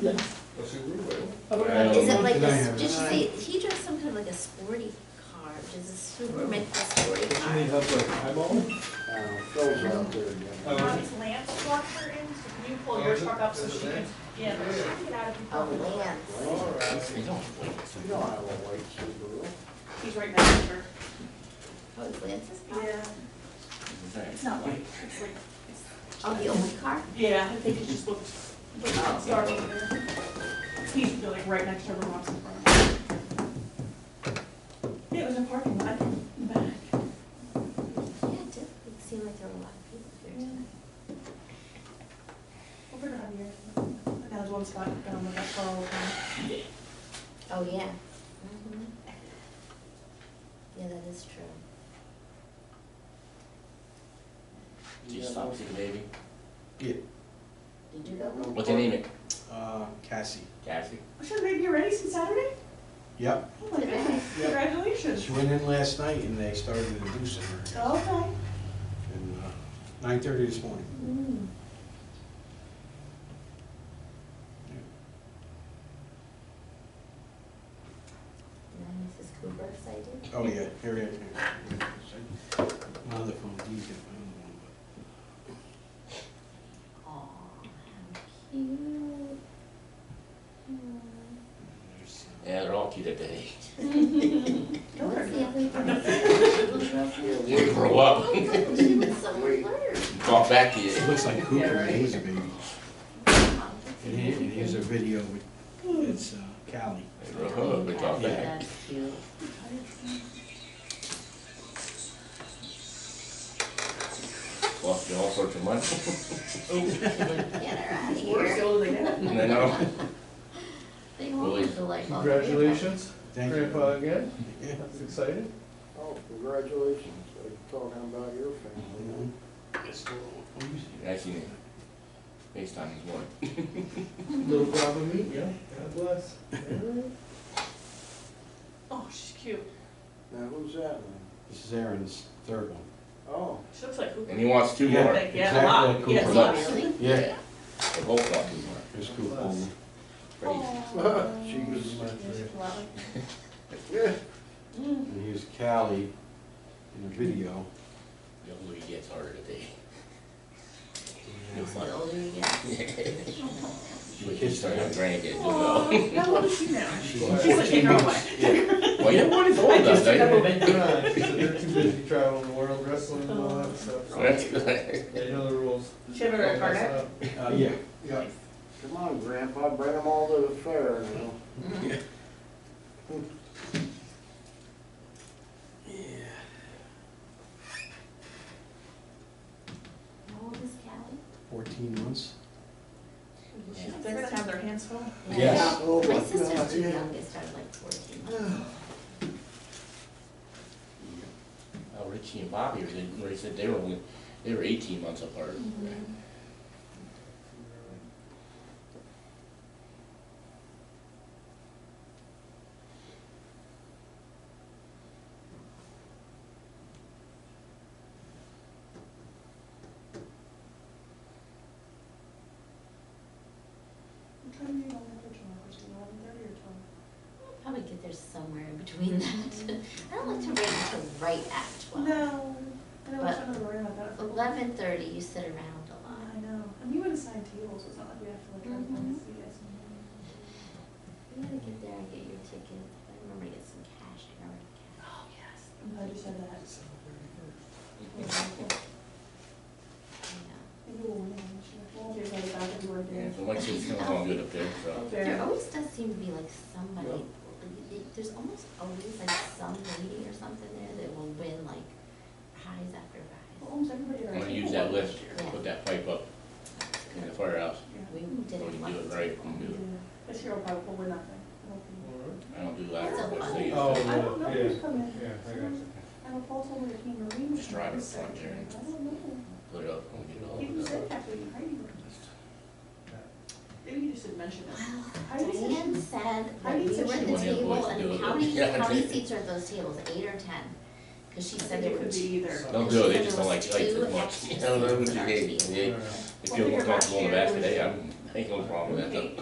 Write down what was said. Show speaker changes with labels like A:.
A: Yes.
B: That's a good way.
A: Otherwise,
C: Is
A: I
C: it like,
A: don't
C: a-
A: know.
C: did she say, he drives some kind of like a sporty car, does a super make a sporty
B: You mean
C: car?
B: have like eyeball?
D: Uh, Phil's out there again.
B: Oh.
E: Is Lance walked her in, so can you pull your truck up so she can, yeah, she can get out
C: Oh,
E: of the.
C: Lance,
D: All right.
A: I don't like it.
D: You don't have a white Subaru.
E: He's right next to her.
C: oh, it's Lance's car?
E: It's not like, it's like,
C: Oh, the old car?
E: yeah, I think it just looked, looked
C: Oh.
E: dark over there. He's like right next to her, walks in front of her. Yeah, it was a parking lot in the back.
C: Yeah, it did, it seemed like there were a lot of people here tonight.
E: Over there, here. That was one spot down the back hall.
C: Oh, yeah. Mhm. Yeah, that is true.
A: Do you stop seeing baby?
C: Did you go?
A: What's her name?
F: Uh, Cassie.
A: Cassie?
E: What's your baby ready since Saturday?
F: Yep,
E: Oh my goodness, congratulations.
F: she went in last night and they started inducing her
E: Okay.
F: in uh, nine thirty this morning.
E: Mm.
C: No, Mrs. Cooper excited?
F: Oh, yeah, Harry, I can't. My other phone, he's got my own one,
C: Aw, how cute. Aw.
F: but there's, uh,
A: Yeah, they're all cute at that age.
C: What's the other
D: Yeah,
A: They
D: we-
A: grow up,
C: one? She was so alert.
A: talk back to you.
F: It looks like
D: Yeah,
F: Cooper, when
D: right.
F: he was a baby. And here- and here's a video with, it's uh, Callie.
A: They grow up, they talk back.
C: That's cute.
A: Cost you all sorts of money.
C: Get her out of
E: We're
C: here.
E: still in the-
A: I know.
C: They won't
A: Willie.
C: have to like all three of us.
B: Congratulations,
F: Thank you.
B: Grandpa again,
F: Yeah.
B: that's exciting.
D: Oh, congratulations. They're talking about your family.
A: I seen it. FaceTime this morning.
B: Little brother me, yeah, God bless.
E: Oh, she's cute.
D: Now, who's that one?
F: This is Aaron's third one.
D: Oh,
E: She looks like Hooper.
A: And he wants two more.
E: Like, Yeah, a lot.
F: exactly,
E: Yeah,
A: Cooper
E: a lot.
A: Lux.
C: Really?
F: Yeah.
A: They both want two more.
F: It's Cooper.
A: Crazy.
D: she was, yeah,
E: Mm.
F: And here's Callie in the video.
A: The older he gets, harder to date.
C: It's the older you get.
A: You would just start having grandkids, you know.
E: Aw, How old is she now?
F: She's
B: She's
E: She's like in her way.
A: Well, you know what, it's all
E: I
A: about
E: just took up a
A: that.
E: bit.
B: Right, so They're too busy traveling the world, wrestling and all that stuff. so
A: That's good.
B: They know the rules.
E: She have a
B: Don't mess
E: card?
B: up.
F: Uh, yeah.
B: Yeah.
D: come on, Grandpa, bring them all to the fair now.
C: How old is Callie?
F: Fourteen months.
E: They're gonna have their hands full.
F: Yes.
D: Oh,
C: My
D: my God,
C: sister's too
D: yeah.
C: young, they started like fourteen.
A: Oh, Richie and Bobby, they, they said they were only, they were eighteen months apart.
C: Mm-hmm.
E: What time are you going for tomorrow? Is it 11:30 or 12?
C: I'll Probably get there somewhere in between that. I don't like to wait until right at twelve.
E: No, I know,
C: But-
E: I'm not worried about that.
C: Eleven thirty, you sit around a lot.
E: I know, and you would assign tables, it's not like we have to like, drive down and see you guys.
C: You gotta get there and get your ticket. I remember to get some cash, I already cash. Oh, yes.
E: I'm glad you said that.
C: Yeah.
E: Maybe we'll win it, I'm sure. We'll be excited about it, we were there.
A: Yeah, so Lexi's coming along good up there, so.
C: There
E: Fair.
C: always does seem to be like somebody, like, they- there's almost always like some lady or something there that will win like prize after
E: Well,
C: prize.
E: Almost everybody at our
A: I'm gonna use
E: table
A: that
E: won
A: lift,
E: this year.
A: put that pipe up in the
C: Good.
A: firehouse.
E: Yeah.
C: We
A: When
C: did it
A: you do it
C: once.
A: right, you
E: Yeah.
A: do
E: This year will probably, we'll win nothing. I don't think.
A: it. I don't do that,
C: That's a
A: but
C: lot.
A: they,
B: Oh,
E: I don't know
B: yeah,
E: who's coming.
B: yeah, I got you.
E: I have a false over the King Marine.
A: Just drive in front
E: I
A: there.
E: don't know.
A: put it up, and we get it all.
E: Even
A: done.
E: said that, but you hiding it. Maybe you just didn't mention it. I didn't say
C: Dan said that
E: didn't
C: we
E: say
C: were at
E: she
A: wanted
C: the
A: boys
C: table
A: to do
C: and
A: it.
C: how many,
A: Yeah, I
C: how many
A: did.
C: seats are at those tables, eight or ten? Cause she
E: I
C: said
E: think
C: there
E: it
C: were
E: could be
C: two.
E: either.
A: Don't do it, they just don't like, like it much.
C: Two
A: I don't know,
C: extra
A: they,
C: cheese.
A: they, they feel more comfortable in the basket, hey, I'm, I ain't no problem with that.